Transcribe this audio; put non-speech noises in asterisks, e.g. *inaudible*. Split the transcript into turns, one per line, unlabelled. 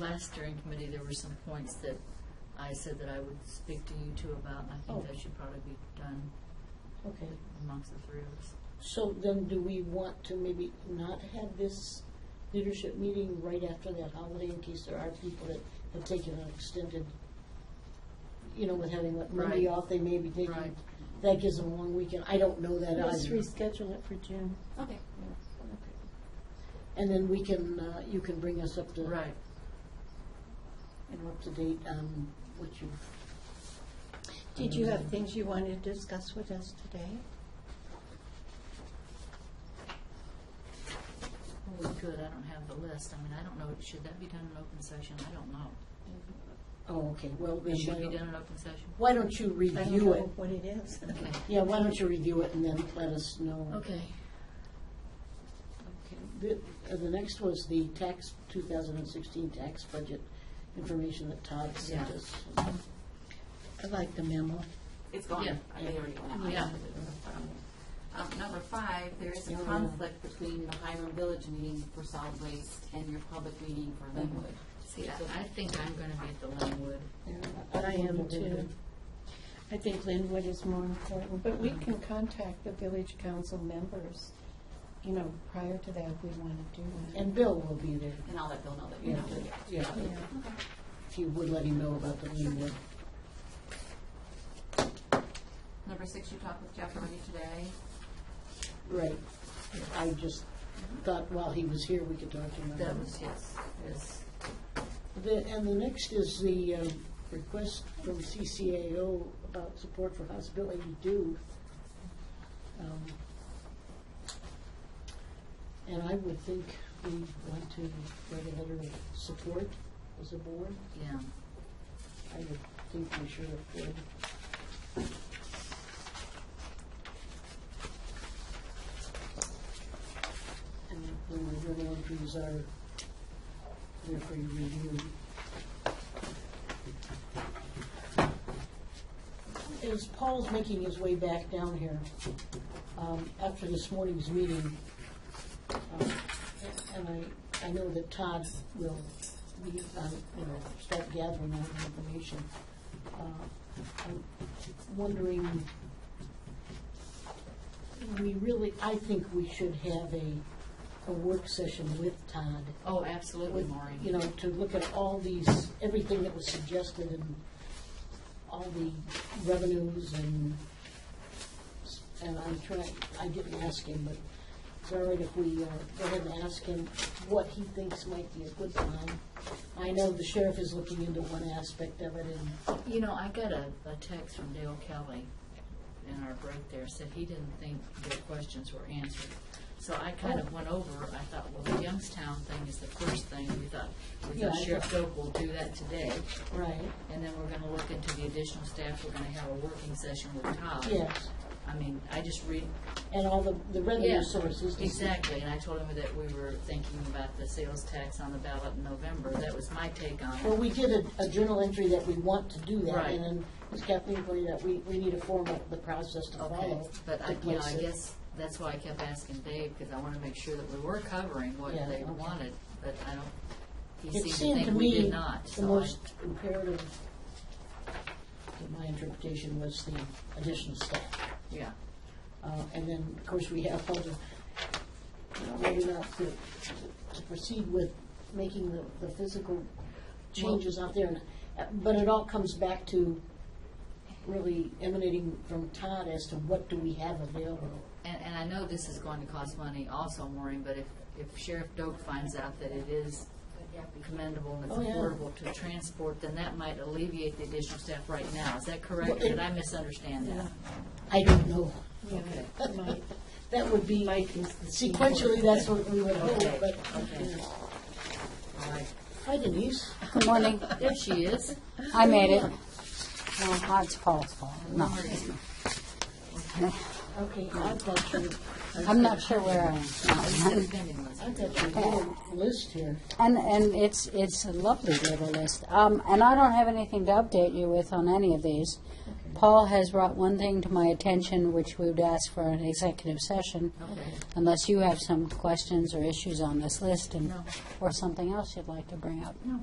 last steering committee, there were some points that I said that I would speak to you two about, and I
Oh.
think that should probably be done
Okay.
amongst the three of us.
So then do we want to maybe not have this leadership meeting right after that holiday in case there are people that have taken an extended, you know, with having like Monday
Right.
off, they may be
Right.
taking, that gives them a long weekend. I don't know that
Let's
either.
reschedule it for June.
Okay.
And then we can, uh, you can bring us up to,
Right.
and up to date on what you've,
Did you have things you wanted to discuss with us today?
Well, we could, I don't have the list. I mean, I don't know, should that be done in open session? I don't know.
oh, okay, well, then
It should
why
be
don't-
done in open session?
why don't you
I don't
review it?
know what it is.
Okay.
Yeah, why don't you review it and then let us know?
Okay.
The, uh, the next was the tax, 2016 tax budget information that Todd sent
Yeah.
us. I like the memo.
It's gone.
Yeah.
I think already gone.
Yeah.
Um, number five, there is a
Yeah.
conflict between the Hiram Village meeting for solid waste and your public meeting for
Mm-hmm.
Linwood.
See, I I think I'm going to be at the Linwood.
I am too. I think Linwood is more important, but we can contact the village council members, you know, prior to that, if we want to do it.
And Bill will be there,
And I'll let Bill know that you're not doing it.
yeah,
Yeah.
if you would let him know about the meeting.
Number six, you talked with Jeff already today.
Right. I just thought while he was here, we could talk to him about
That
it.
was, yes, yes.
The- And the next is the uh, request from CCAO about support for Hospital 82. Um, And I would think we want to write a letter of support as a board.
Yeah.
I would think we should have did. And we were going to use our, their free review. As Paul's making his way back down here, um, after this morning's meeting, um, and I, I know that Todd will be, uh, you know, start gathering all the information. Uh, I'm wondering, we really, I think we should have a, a work session with Todd.
Oh, absolutely,
with,
Maureen.
You know, to look at all these, everything that was suggested and all the revenues and, and I'm trying, I didn't ask him, but it's all right if we uh, go ahead and ask him what he thinks might be a good time. I know the sheriff is looking into one aspect of it and,
You know, I got a, a text from Dale Kelly in our break there, said he didn't think their questions were answered. So I kind
Oh.
of went over, I thought, well, the Youngstown thing is the first thing, we thought, we
Yeah,
thought
I
Sheriff Doak will do that today.
right,
And then we're gonna look into the additional staff, we're gonna have a working session with Todd.
yes.
I mean, I just read.
And all the, the
Yeah,
revenue sources. to see-
Exactly, and I told him that we were thinking about the sales tax on the ballot in November, that was my take on it.
Well, we did a, a journal entry that we want to do that,
Right.
and then as Kathleen pointed out, we, we need to form up the process to
Okay,
follow.
but I,
to
you know,
place
I
it.
guess that's why I kept asking Dave, because I want to make sure that we were covering what
Yeah,
they
okay.
wanted, but I don't, he
It
seemed to
seemed to
think we did
me
not,
the
so I,
most imperative, in my interpretation, was the additional staff.
yeah.
Uh, and then, of course, we have all the, you know, maybe not to, to proceed with making the, the physical changes out there. and- uh, But it all comes back to really emanating from Todd as to what do we have available.
And, and I know this is going to cost money also, Maureen, but if, if Sheriff Doak finds out that it is commendable and it's
Oh, yeah.
affordable to transport, then that might alleviate the additional staff right now, is that correct,
Well, it-
did I misunderstand that?
I don't know.
Yeah, Mike,
*laughs* That would be,
Mike is the. key word.
sequentially, that's what we would hope,
Okay,
but.
okay. All right,
Hi Denise.
Good morning.
there she is.
I made it. Well, that's Paul's fault. No,
Okay, I thought you,
I'm not sure where I am.
Instead of bending this.
I thought you had a list here.
And, and it's, it's a lovely little list. Um, and I don't have anything to update you with on any of these. Paul has brought one thing to my attention, which we would ask for an executive session.
Okay.
Unless you have some questions or issues on this list and,
No.
or something else you'd like to bring up.
No,